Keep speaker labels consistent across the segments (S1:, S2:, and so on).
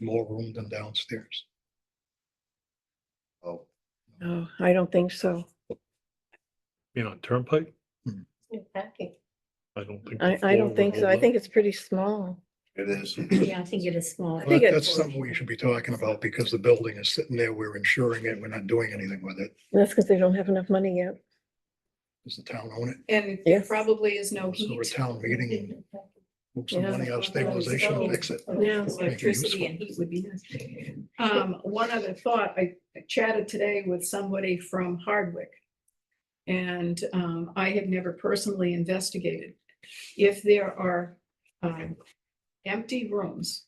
S1: more room than downstairs.
S2: Oh,
S3: No, I don't think so.
S4: You know, turnpike,
S5: Exactly.
S4: I don't think.
S3: I,
S4: the
S3: I
S4: floor
S3: don't
S4: would
S3: think so.
S4: hold
S3: I
S4: up.
S3: think it's pretty small.
S2: it is.
S5: Yeah, I think it is small.
S3: I
S1: But
S3: think it-
S1: That's something we should be talking about because the building is sitting there, we're insuring it, we're not doing anything with it.
S3: That's because they don't have enough money yet.
S1: Does the town own it?
S6: And there
S3: Yes.
S6: probably is no
S1: So a
S6: heat.
S1: town meeting and move some
S3: Yeah.
S1: money out of stabilization, and fix it.
S3: Yeah.
S1: Make it
S5: Electricity
S1: useful.
S5: and heat would be nice.
S6: Um, one other thought, I chatted today with somebody from Hardwick. And, um, I have never personally investigated. If there are, um, empty rooms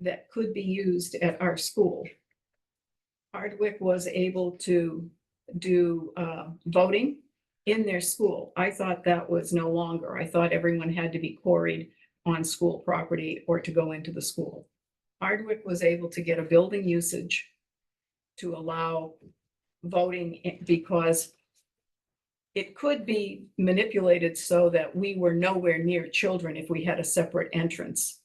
S6: that could be used at our school. Hardwick was able to do, uh, voting in their school. I thought that was no longer. I thought everyone had to be quarried on school property or to go into the school. Hardwick was able to get a building usage to allow voting i- because it could be manipulated so that we were nowhere near children if we had a separate entrance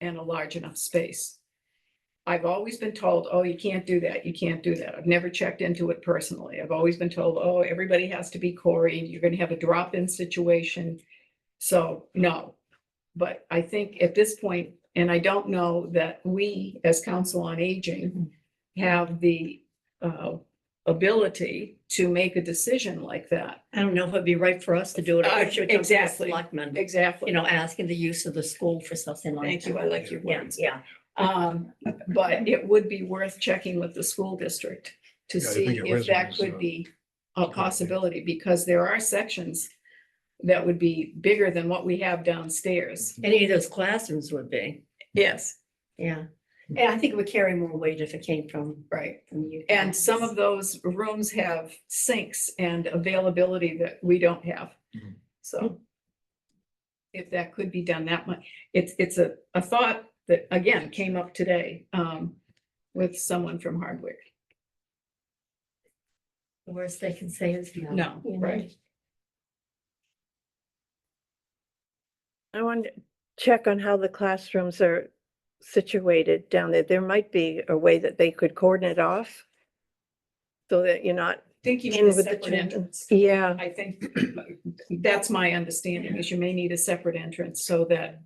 S6: and a large enough space. I've always been told, oh, you can't do that, you can't do that. I've never checked into it personally. I've always been told, oh, everybody has to be quarried, you're gonna have a drop-in situation. So, no, but I think at this point, and I don't know that we, as Council on Aging, have the uh, ability to make a decision like that.
S5: I don't know if it'd be right for us to do it. or
S6: Uh,
S5: it should come to the
S6: exactly.
S5: Selectmen,
S6: Exactly.
S5: you know, asking the use of the school for something like
S6: Thank you,
S5: that.
S6: I like your
S5: Yeah,
S6: words.
S5: yeah.
S6: Um, But it would be worth checking with the school district to
S1: Yeah, I
S6: see
S1: think your
S6: if that
S1: resume's,
S6: could
S1: uh,
S6: be a
S1: idea.
S6: possibility, because there are sections that would be bigger than what we have downstairs.
S5: Any of those classrooms would be,
S6: Yes.
S5: yeah. And I think it would carry more weight if it came from,
S6: Right.
S5: from you.
S6: And
S5: guys.
S6: some of those rooms have sinks and availability that we don't have.
S7: Mm-hmm.
S1: Mhm.
S6: So if that could be done that much, it's, it's a, a thought that again came up today um, with someone from Hardwick.
S5: The worst they can say is no.
S6: No,
S5: you know?
S6: right.
S3: I want to check on how the classrooms are situated down there. There might be a way that they could cordon it off. So that you're not,
S6: Think you
S3: In
S6: need
S3: with
S6: a
S3: the
S6: separate
S3: children.
S6: entrance.
S3: yeah,
S6: I think that's my understanding is you may need a separate entrance so that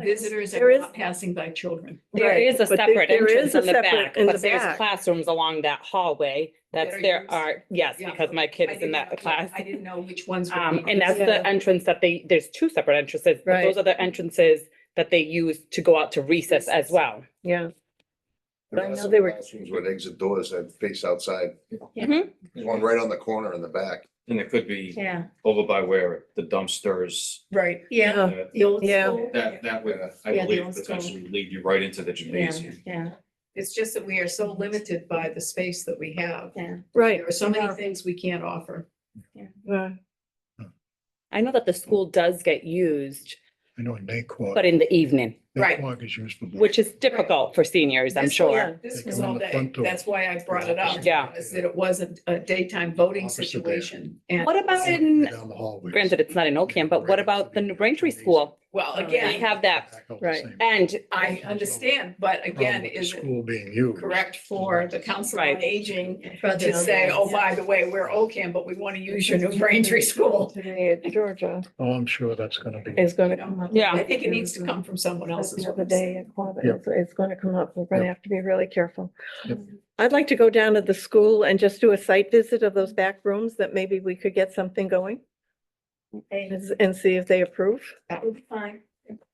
S6: visitors
S3: There
S6: are
S3: is-
S6: not passing by children.
S7: There
S3: Right,
S7: is a
S3: but there-
S7: separate
S3: there
S7: entrance
S3: is a
S7: in the
S3: separate
S7: back,
S3: in the
S7: but there's
S3: back.
S7: classrooms along that hallway. That's
S6: are
S7: there
S6: used.
S7: are, yes,
S6: Yeah,
S7: because my
S6: I
S7: kid is in
S6: didn't know-
S7: that class.
S6: I didn't know which ones. would
S7: Um,
S6: be
S7: and that's
S3: Yeah.
S7: the entrance that they, there's two separate entrances, but
S3: Right.
S7: those are the entrances that they use to go out to recess as well.
S3: yeah.
S2: There
S3: I
S2: are
S3: know
S2: some
S3: they were-
S2: classrooms With exit doors that face outside,
S5: Mm-hmm.
S2: There's one
S8: And
S2: right on the corner in the back.
S8: it could be
S5: Yeah,
S8: over by where the dumpsters,
S6: Right.
S5: yeah.
S8: uh,
S3: Oh,
S5: The old
S3: Yeah.
S5: school.
S8: that, that would, I
S5: Yeah, the
S8: believe,
S5: old school.
S8: potentially lead you right into the
S5: Yeah,
S8: gymnasium.
S5: yeah,
S6: It's just that we are so limited by the space that we have.
S5: yeah.
S3: Right.
S6: There are so many
S5: Yeah.
S6: things we can't offer.
S3: yeah.
S7: I know that the
S3: Mm.
S7: school does get used,
S1: I know in Naqog.
S7: but in the evening,
S6: Right.
S1: Naqog is used for.
S7: which is difficult for seniors, I'm
S6: This was-
S7: sure.
S6: This
S1: They
S6: was
S1: come in
S6: all
S1: the
S6: day.
S1: front door.
S6: That's why I brought it up.
S7: Yeah.
S6: Is that it wasn't a daytime voting
S1: Officer there.
S6: situation. And,
S7: What about
S1: Down
S7: in,
S1: the hallways.
S7: granted, it's not in Ocam, but what about the New Braintree School?
S3: Oh,
S6: well,
S7: They
S6: again,
S7: have that,
S1: Back out the
S3: Right.
S1: same.
S7: and
S6: I understand, but
S1: Problem
S6: again,
S1: with Oh, the
S6: is it
S1: School being used.
S6: correct for the Council on
S7: Right.
S6: Aging
S5: Brother-
S6: to say, oh, by the way, we're OCAM, but we want to use your New Braintree School?
S3: Today at Georgia
S1: Oh, I'm sure that's gonna be.
S3: is gonna
S6: You
S3: come
S6: know,
S3: up.
S7: Yeah.
S6: I think it needs to come from someone
S3: That's
S6: else's.
S3: The other day at Quabbin,
S1: Yeah.
S3: it's, it's gonna come up, we're gonna have to be really careful.
S1: Yep.
S3: I'd like to go down to the school and just do a site visit of those back rooms, that maybe we could get something going
S5: Hey,
S3: and and see if they approve,
S5: That would be fine.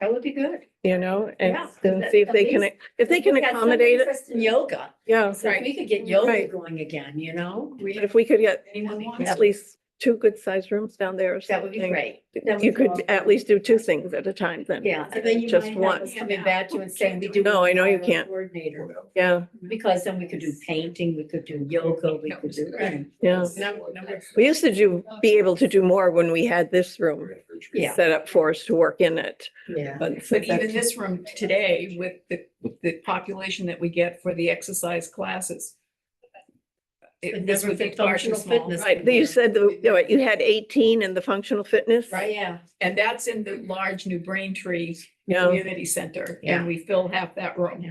S5: That would be good.
S3: you know, and
S5: Yeah,
S3: then
S5: at-
S3: see if
S5: at
S3: they can,
S5: least-
S3: if they can
S5: We got some
S3: accommodate it,
S5: interest in Yoga,
S3: yeah.
S5: so if
S6: Right.
S5: we could get yoga
S3: Right.
S5: going again, you know?
S6: We-
S3: But if we could get
S6: Anyone wants
S3: at least two good-sized rooms down there or
S5: That would be
S3: something,
S5: great. That
S3: You
S5: would
S3: could
S5: help.
S3: at least do two things at a time then.
S5: Yeah, and then you
S3: Just
S5: might
S3: one.
S5: have us coming back to you and saying we do.
S3: No, I know you
S5: require a
S3: can't.
S5: Coordinator,
S3: Yeah,
S5: because then we could do painting, we could do yoga, we could do.
S6: Right.
S3: yeah.
S6: Number, number
S3: We used to do, be able to do more when we had this room
S5: Yeah.
S3: set up for us to work in it.
S5: Yeah.
S3: But
S6: But even this room today with the, the population that we get for the exercise classes, it-
S5: But
S6: this
S5: never
S6: would be
S5: the
S6: far too
S5: functional
S6: small.
S5: fitness.
S6: Right,
S3: You said the- you know, you had eighteen in the functional fitness?
S6: Right.
S5: Yeah.
S6: and that's in the large New Braintree
S3: Yeah.
S6: Community Center,
S5: Yeah.
S6: and we fill half that room.